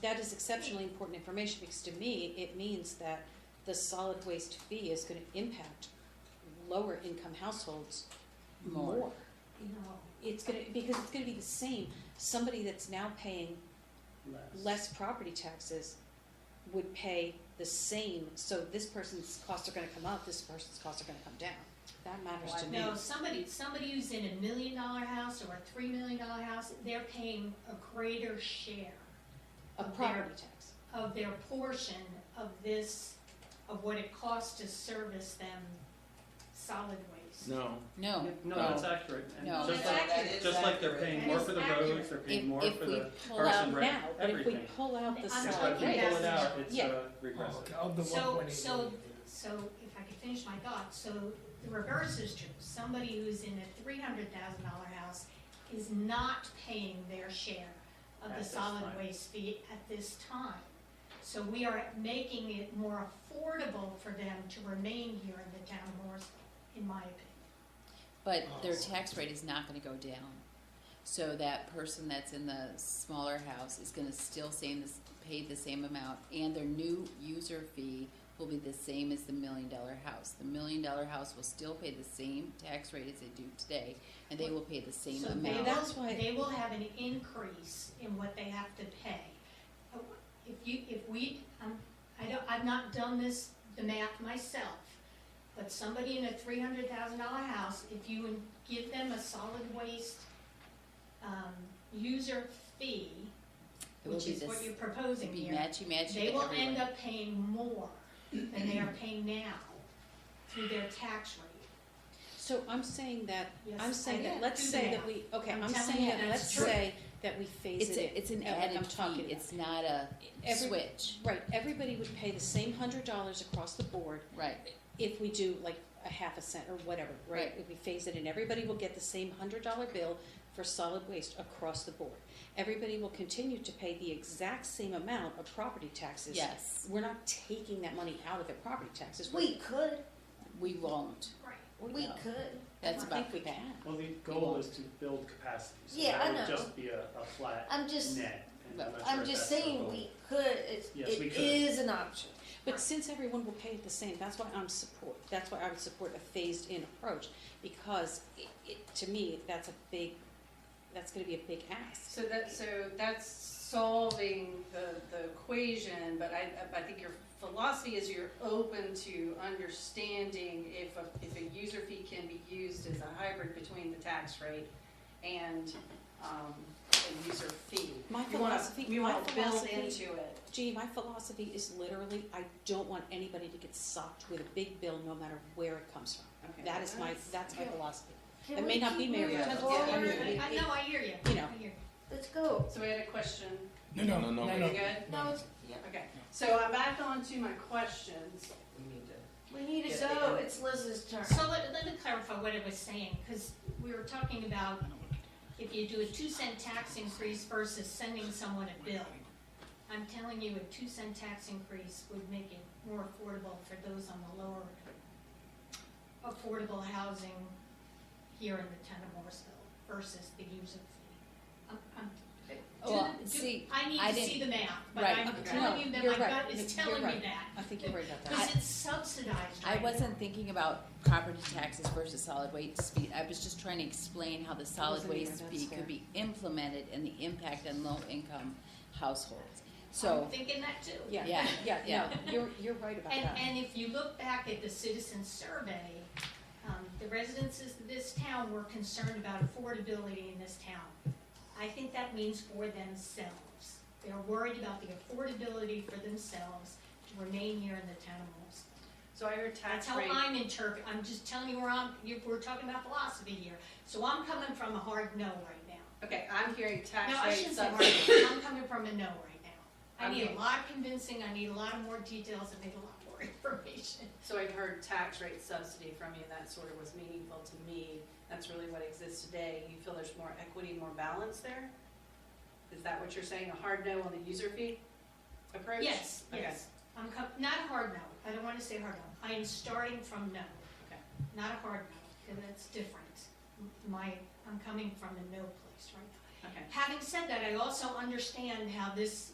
that is exceptionally important information, because to me, it means that the solid waste fee is gonna impact lower income households More. more. It's gonna, because it's gonna be the same, somebody that's now paying less property taxes would pay the same, so this person's costs are gonna come up, this person's costs are gonna come down. That matters to me. No, somebody, somebody who's in a million dollar house or a three million dollar house, they're paying a greater share A property tax. of their portion of this, of what it costs to service them solid waste. No, No, No, that's accurate. And No. Just That's like, accurate. just like they're paying more for the That is accurate. roads, they're if, paying more if for we the. pull pull Parks out, out and Rec, now, but if we everything. pull out the I'm It's solid like talking you waste- pull it out, about- it's Yeah. uh, regressive. Of the So- one twenty. so- So if I could finish my thought, so the reverse is true. Somebody who's in a three hundred thousand dollar house is not paying their share of At the this solid time. waste fee at this time. So we are making it more affordable for them to remain here in the town of Morrisville, in my opinion. but their tax rate is not gonna go down. So that person that's in the smaller house is gonna still stay in this, pay the same amount, and their new user fee will be the same as the million dollar house. The million dollar house will still pay the same tax rate as they do today, and they will pay the same So amount. they That's will, why- they will have an increase in what they have to pay. If you, if we, um, I don't, I've not done this, the math myself, but somebody in a three hundred thousand dollar house, if you would give them a solid waste, um, user fee, It will which be is this- what you're proposing It'd be here. matchy matchy They to will everyone. end up paying more than they are paying now through their tax rate. So I'm saying that, Yes, I'm saying I that, let's do say that. that we, okay, I'm I'm telling saying you that, that's let's true. say that we phase It's it in. a, it's an uh, like I'm added talking fee, about. it's not a Every- switch, Right, everybody would pay the same hundred dollars across the board right, if we do like a half a cent or whatever, right? Right. If we phase it in, everybody will get the same hundred dollar bill for solid waste across the board. Everybody will continue to pay the exact same amount of property taxes. yes, We're not taking that money out of their property taxes. We're- We could, we won't, Right. we No. could. that's I about think we can. Well, the goal is to build capacity, so Yeah, I that would know. just be a, a flat I'm just, net. and But not sure I'm if just that's our saying, goal. we could, it's, Yes, we it could. is an option. But since everyone will pay it the same, that's why I'm support, that's why I would support a phased-in approach, because it, it, to me, that's a big, that's gonna be a big ask. So that, so that's solving the, the equation, but I, I think your philosophy is you're open to understanding if a, if a user fee can be used as a hybrid between the tax rate and, um, a user fee. My You wanna- philosophy- You my wanna build philosophy- into it. Gee, my philosophy is literally, I don't want anybody to get socked with a big bill, no matter where it comes from. Okay, That is my, that's- that's my Yeah. philosophy, Can It may we not be keep Mary moving Jo. forward? Yeah, I mean, I, I know, I hear you, I You hear know. you. Let's go. So we had a question. No, no, no, no. No, Are no. you good? No, it's, yeah, Okay, so I'm back on to my questions. we need to Get the go, end. it's Liz's turn. So let, let me clarify what it was saying, because we were talking about if you do a two cent tax increase versus sending someone a bill. I'm telling you, a two cent tax increase would make it more affordable for those on the lower affordable housing here in the town of Morrisville versus the user fee. I'm, I'm, do well, the- do- see, I need I to see the didn't- math, but right, I'm okay. telling No, you that you're my right. gut is You're telling me right. that, I think you're right about that. because it's subsidized I right now. wasn't thinking about property taxes versus solid waste fee, I was just trying to explain how the solid wasn't either, waste that's fee fair. could be implemented and the impact on low income households. I'm So, thinking that too. Yeah, yeah, Yeah, yeah, no, you're, you're right about And, that. and if you look back at the citizen survey, um, the residences of this town were concerned about affordability in this town. I think that means for themselves. They're worried about the affordability for themselves to remain here in the town of Wilmington. So I heard That's tax how rate. I'm interpret, I'm just telling you where I'm, you, we're talking about philosophy here. So I'm coming from a hard no right now. Okay, I'm hearing tax No, I rate shouldn't say subsidy. hard, no. I'm coming from a no right now. I need Okay. a lot of convincing, I need a lot of more details, I need a lot more information. So I've heard tax rate subsidy from you, that sort of was meaningful to me. That's really what exists today. You feel there's more equity, more balance there? Is that what you're saying, a hard no on the user fee approach? Yes, Okay. yes. I'm com- not a hard no, I don't wanna say hard no, I am starting from no. Okay. Not a hard no, cause that's different. M- My, I'm coming from a no place right now. Okay, Having said that, I also understand how this